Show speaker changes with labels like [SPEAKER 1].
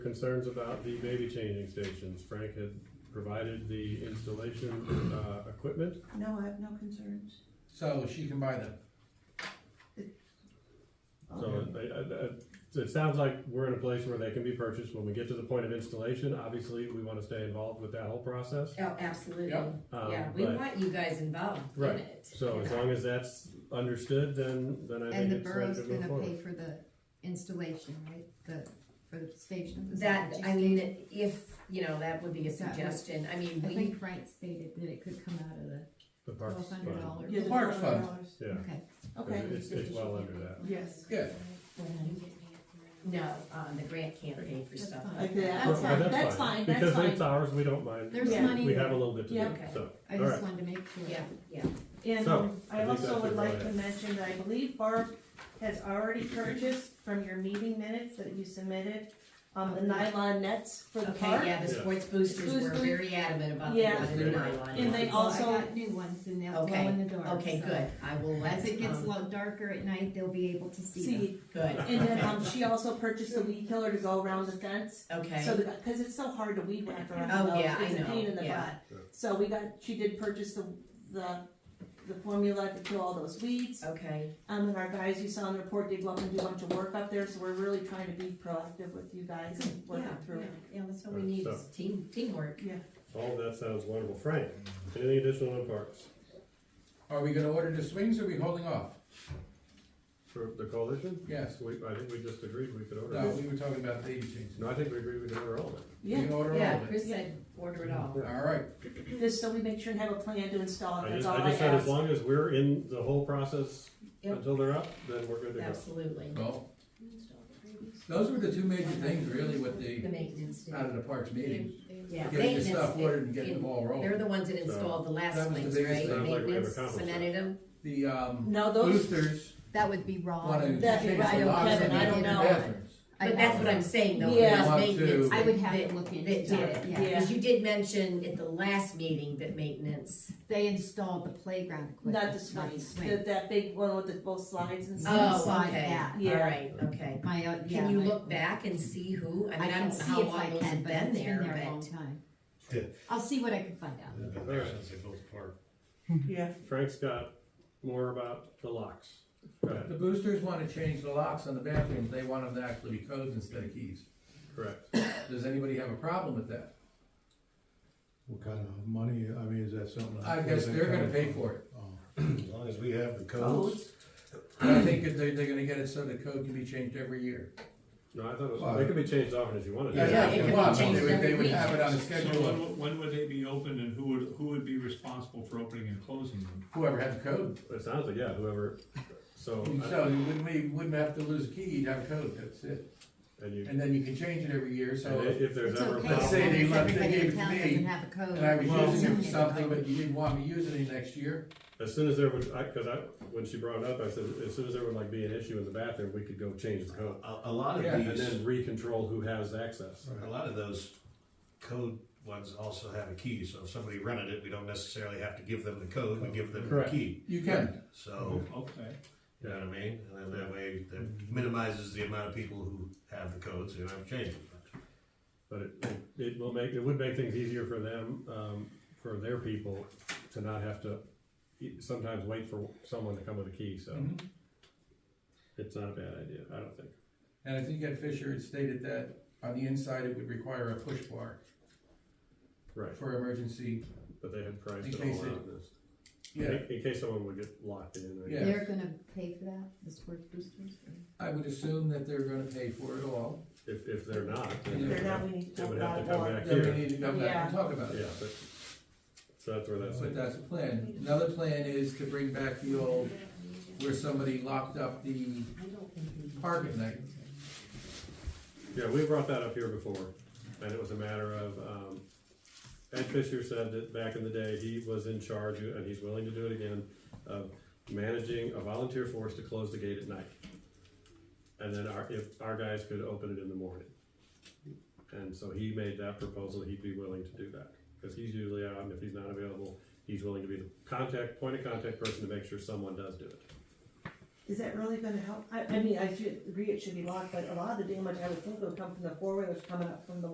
[SPEAKER 1] concerns about the baby changing stations. Frank had provided the installation, uh, equipment.
[SPEAKER 2] No, I have no concerns.
[SPEAKER 3] So she can buy them.
[SPEAKER 1] So I- I- I- so it sounds like we're in a place where they can be purchased. When we get to the point of installation, obviously, we want to stay involved with that whole process.
[SPEAKER 4] Oh, absolutely.
[SPEAKER 3] Yep.
[SPEAKER 1] Um,
[SPEAKER 4] Yeah, we
[SPEAKER 1] but-
[SPEAKER 4] want you guys involved in
[SPEAKER 1] Right.
[SPEAKER 4] it.
[SPEAKER 1] So as long as that's understood, then, then I think
[SPEAKER 5] And the
[SPEAKER 1] it's ready
[SPEAKER 5] borough's
[SPEAKER 1] to move
[SPEAKER 5] gonna
[SPEAKER 1] forward.
[SPEAKER 5] pay for the installation, right, the, for the station? the
[SPEAKER 4] That,
[SPEAKER 5] station.
[SPEAKER 4] I mean, if, you know, that would be a
[SPEAKER 5] That would-
[SPEAKER 4] suggestion, I mean,
[SPEAKER 5] I
[SPEAKER 4] we,
[SPEAKER 5] think Frank stated that it could come out of the
[SPEAKER 1] The parks
[SPEAKER 5] twelve hundred
[SPEAKER 1] fund.
[SPEAKER 5] dollars.
[SPEAKER 2] Yeah, the
[SPEAKER 3] Park fund.
[SPEAKER 2] $12.
[SPEAKER 1] Yeah,
[SPEAKER 5] Okay,
[SPEAKER 2] Okay,
[SPEAKER 1] it's, it's well under that.
[SPEAKER 2] yes.
[SPEAKER 3] Good.
[SPEAKER 4] no, um, the grant can't pay for
[SPEAKER 5] That's
[SPEAKER 4] stuff.
[SPEAKER 5] fine.
[SPEAKER 2] Okay,
[SPEAKER 1] But-
[SPEAKER 2] that's
[SPEAKER 1] but
[SPEAKER 2] fine, that's fine, that's
[SPEAKER 1] Because
[SPEAKER 2] fine.
[SPEAKER 1] it's ours, we don't mind.
[SPEAKER 5] there's
[SPEAKER 2] Yeah.
[SPEAKER 5] money
[SPEAKER 1] We have a
[SPEAKER 5] there,
[SPEAKER 1] little bit to do,
[SPEAKER 2] Yeah.
[SPEAKER 4] Okay.
[SPEAKER 1] so.
[SPEAKER 5] I
[SPEAKER 1] all
[SPEAKER 5] just
[SPEAKER 1] right.
[SPEAKER 5] wanted to make sure.
[SPEAKER 4] Yeah, yeah,
[SPEAKER 2] And
[SPEAKER 1] So,
[SPEAKER 2] um,
[SPEAKER 1] I
[SPEAKER 2] I
[SPEAKER 1] think
[SPEAKER 2] also
[SPEAKER 1] that's a
[SPEAKER 2] would like to
[SPEAKER 1] good
[SPEAKER 2] mention that I believe Barb has already purchased from your meeting minutes that you submitted, um, the nylon nets for the
[SPEAKER 4] okay,
[SPEAKER 2] park.
[SPEAKER 4] yeah, the
[SPEAKER 1] Yeah.
[SPEAKER 4] sports boosters were
[SPEAKER 2] Boosters.
[SPEAKER 4] very adamant about the
[SPEAKER 2] Yeah.
[SPEAKER 4] one in nylon.
[SPEAKER 2] And they
[SPEAKER 5] So
[SPEAKER 2] also-
[SPEAKER 5] I got new ones and they'll glow
[SPEAKER 4] Okay,
[SPEAKER 5] in the dark.
[SPEAKER 4] Okay,
[SPEAKER 5] so
[SPEAKER 4] good, I will let,
[SPEAKER 5] As it gets a
[SPEAKER 4] um,
[SPEAKER 5] little darker at night, they'll be able to see them.
[SPEAKER 2] See,
[SPEAKER 4] good,
[SPEAKER 2] and then, um, she also purchased a weed killer to go around the fence,
[SPEAKER 4] okay.
[SPEAKER 2] so that, cause it's so hard to weed whack around
[SPEAKER 4] Oh,
[SPEAKER 2] those,
[SPEAKER 4] yeah, I
[SPEAKER 2] it's a
[SPEAKER 4] know,
[SPEAKER 2] pain in the butt.
[SPEAKER 4] yeah.
[SPEAKER 1] Sure.
[SPEAKER 2] So we got, she did purchase the, the, the formula to kill all those weeds,
[SPEAKER 4] Okay,
[SPEAKER 2] um, and our guys you saw in the report did go up and do a bunch of work up there, so we're really trying to be proactive with you guys and
[SPEAKER 4] yeah,
[SPEAKER 2] working
[SPEAKER 4] yeah,
[SPEAKER 2] through it.
[SPEAKER 4] yeah, that's what we need,
[SPEAKER 1] So-
[SPEAKER 4] is team, teamwork.
[SPEAKER 1] All of that sounds wonderful. Frank, anything additional on parks
[SPEAKER 3] Are we gonna order the swings or are we holding off?
[SPEAKER 1] for the coalition?
[SPEAKER 3] Yes.
[SPEAKER 1] We, I think we just agreed we could
[SPEAKER 3] No,
[SPEAKER 1] order it.
[SPEAKER 3] we were talking about baby changes.
[SPEAKER 1] No, I think we agreed we could order all of it.
[SPEAKER 3] We
[SPEAKER 2] Yeah,
[SPEAKER 3] can order all
[SPEAKER 4] Yeah,
[SPEAKER 3] of it.
[SPEAKER 4] Chris said, order it all.
[SPEAKER 3] All right,
[SPEAKER 2] just so we make sure and have a plan to install it,
[SPEAKER 1] I
[SPEAKER 2] that's
[SPEAKER 1] just,
[SPEAKER 2] all
[SPEAKER 1] I
[SPEAKER 2] I
[SPEAKER 1] just said, as
[SPEAKER 2] ask.
[SPEAKER 1] long as we're in the whole process
[SPEAKER 4] Yep.
[SPEAKER 1] until they're up, then we're good to go.
[SPEAKER 4] Absolutely.
[SPEAKER 3] so, those were the two major things really with
[SPEAKER 4] The
[SPEAKER 3] the,
[SPEAKER 4] maintenance,
[SPEAKER 3] out of the parks meeting.
[SPEAKER 4] yeah.
[SPEAKER 3] Uh, Getting the
[SPEAKER 4] maintenance.
[SPEAKER 3] stuff ordered and getting the
[SPEAKER 4] in-
[SPEAKER 3] ball
[SPEAKER 4] They're
[SPEAKER 3] rolling.
[SPEAKER 4] the ones that installed the last
[SPEAKER 3] That was the
[SPEAKER 4] ones,
[SPEAKER 3] biggest
[SPEAKER 4] right?
[SPEAKER 1] thing. Sounds like we have
[SPEAKER 4] Maintenance
[SPEAKER 1] accomplished
[SPEAKER 4] cemented them,
[SPEAKER 3] The, um,
[SPEAKER 2] No, those,
[SPEAKER 3] boosters
[SPEAKER 5] That would be wrong.
[SPEAKER 3] wanna change
[SPEAKER 2] That'd be right
[SPEAKER 3] the
[SPEAKER 2] on
[SPEAKER 3] locks
[SPEAKER 2] Kevin,
[SPEAKER 3] in the
[SPEAKER 2] I don't
[SPEAKER 3] in the
[SPEAKER 2] know.
[SPEAKER 3] bathrooms.
[SPEAKER 5] I-
[SPEAKER 4] but that's what I'm saying though,
[SPEAKER 2] Yeah.
[SPEAKER 4] it was
[SPEAKER 3] Want to-
[SPEAKER 4] maintenance.
[SPEAKER 5] I would have
[SPEAKER 4] that-
[SPEAKER 5] to look into
[SPEAKER 4] that did
[SPEAKER 5] it,
[SPEAKER 4] it.
[SPEAKER 5] yeah.
[SPEAKER 4] Cause you did mention at the last meeting that maintenance,
[SPEAKER 5] They installed the playground equipment.
[SPEAKER 2] not the swings,
[SPEAKER 5] swing.
[SPEAKER 2] that, that big one with the both slides and stuff.
[SPEAKER 4] oh,
[SPEAKER 5] Inside
[SPEAKER 4] okay,
[SPEAKER 5] that.
[SPEAKER 2] Yeah.
[SPEAKER 4] alright, okay.
[SPEAKER 5] My, uh, yeah.
[SPEAKER 4] Can you
[SPEAKER 5] my-
[SPEAKER 4] look back and see who, I
[SPEAKER 5] I
[SPEAKER 4] mean, I
[SPEAKER 5] can
[SPEAKER 4] don't know
[SPEAKER 5] see
[SPEAKER 4] how
[SPEAKER 5] if I
[SPEAKER 4] long those
[SPEAKER 5] can,
[SPEAKER 4] have
[SPEAKER 5] but it's
[SPEAKER 4] been
[SPEAKER 5] been
[SPEAKER 4] there,
[SPEAKER 5] there a long
[SPEAKER 4] but,
[SPEAKER 5] time.
[SPEAKER 1] Yeah.
[SPEAKER 5] I'll see what I can find out.
[SPEAKER 6] They've been there since they built the park.
[SPEAKER 2] Yeah.
[SPEAKER 1] Frank's got more about the locks. Go ahead.
[SPEAKER 3] The boosters wanna change the locks on the bathrooms, they want them to actually be codes instead of keys.
[SPEAKER 1] Correct.
[SPEAKER 3] Does anybody have a problem with that?
[SPEAKER 6] What kind of money, I mean, is that something?
[SPEAKER 3] I guess they're gonna pay for it.
[SPEAKER 6] Oh, As long as we have the codes.
[SPEAKER 2] Codes.
[SPEAKER 3] I think that they, they're gonna get it so the code can be changed every year.
[SPEAKER 1] No, I thought it
[SPEAKER 6] Well,
[SPEAKER 1] was, it could be changed often as you wanted.
[SPEAKER 4] Yeah, yeah, it could be
[SPEAKER 3] Well,
[SPEAKER 4] changed
[SPEAKER 3] they would-
[SPEAKER 4] every
[SPEAKER 3] They would
[SPEAKER 4] week.
[SPEAKER 3] have it on a
[SPEAKER 7] So
[SPEAKER 3] schedule,
[SPEAKER 7] when, when would they be open and who would, who would be responsible for opening and closing them?
[SPEAKER 3] whoever had the code.
[SPEAKER 1] It sounds like, yeah, whoever, so,
[SPEAKER 3] So you wouldn't, we wouldn't have to lose a key, you'd have a code, that's it.
[SPEAKER 1] and you,
[SPEAKER 3] And then you can change it every year,
[SPEAKER 1] and
[SPEAKER 3] so,
[SPEAKER 1] if if there's
[SPEAKER 5] It's
[SPEAKER 1] ever a
[SPEAKER 5] okay,
[SPEAKER 3] Let's
[SPEAKER 5] as
[SPEAKER 3] say
[SPEAKER 5] long
[SPEAKER 3] they
[SPEAKER 1] problem.
[SPEAKER 5] as
[SPEAKER 3] left- they
[SPEAKER 5] everybody
[SPEAKER 3] gave
[SPEAKER 5] in
[SPEAKER 3] it to
[SPEAKER 5] town
[SPEAKER 3] me,
[SPEAKER 5] doesn't have a code.
[SPEAKER 3] and I was
[SPEAKER 5] Well,
[SPEAKER 3] using it for
[SPEAKER 5] it's okay.
[SPEAKER 3] something, but you didn't want me using it next year.
[SPEAKER 1] As soon as there would, I, cause I, when she brought it up, I said, as soon as there would like be an issue in the bathroom, we could go change the code.
[SPEAKER 6] A, a lot
[SPEAKER 3] Yeah,
[SPEAKER 6] of
[SPEAKER 1] And
[SPEAKER 6] these,
[SPEAKER 1] then recontrol who has access.
[SPEAKER 6] a
[SPEAKER 1] Right.
[SPEAKER 6] lot of those code ones also have a key, so if somebody rented it, we don't necessarily have to give them the code, we give them the
[SPEAKER 3] Correct.
[SPEAKER 6] key.
[SPEAKER 3] You can,
[SPEAKER 6] So,
[SPEAKER 7] Okay,
[SPEAKER 6] you know what I mean? And then that way, that minimizes the amount of people who have the codes, you know, changing.
[SPEAKER 1] But it, it- it will make, it would make things easier for them, um, for their people to not have to e- sometimes wait for someone to come with a key, so.
[SPEAKER 3] Mhm.
[SPEAKER 1] It's not a bad idea, I don't think.
[SPEAKER 3] and I think at Fisher, it stated that on the inside, it would require a push bar
[SPEAKER 1] Right,
[SPEAKER 3] for emergency.
[SPEAKER 1] but they had priced
[SPEAKER 3] In
[SPEAKER 1] it all
[SPEAKER 3] case it-
[SPEAKER 1] out in this.
[SPEAKER 3] Yeah,
[SPEAKER 1] In, in case someone would get locked in. I
[SPEAKER 3] Yeah.
[SPEAKER 1] guess.
[SPEAKER 5] They're gonna pay for that, the sports boosters?
[SPEAKER 3] I would assume that they're gonna pay for it all,
[SPEAKER 1] If, if they're not,
[SPEAKER 3] If
[SPEAKER 1] then
[SPEAKER 2] They're not, we need to
[SPEAKER 1] They
[SPEAKER 2] talk
[SPEAKER 1] would have to
[SPEAKER 2] about it
[SPEAKER 1] come
[SPEAKER 2] more.
[SPEAKER 1] back
[SPEAKER 3] then we
[SPEAKER 1] here.
[SPEAKER 3] need to come back and talk about it.
[SPEAKER 1] Yeah, but, so that's where that's
[SPEAKER 3] But
[SPEAKER 1] like,
[SPEAKER 3] that's the plan. Another plan is to bring back the old, where somebody locked up the park at night.
[SPEAKER 1] yeah, we brought that up here before, and it was a matter of, um, Ed Fisher said that back in the day, he was in charge, and he's willing to do it again, of managing a volunteer force to close the gate at night. And then our, if our guys could open it in the morning. And so he made that proposal, he'd be willing to do that, because he's usually out, and if he's not available, he's willing to be the contact, point of contact person to make sure someone does do it.
[SPEAKER 2] is that really gonna help? I, I mean, I should agree it should be locked, but a lot of the damage I would think would come from the four-wheelers coming up from the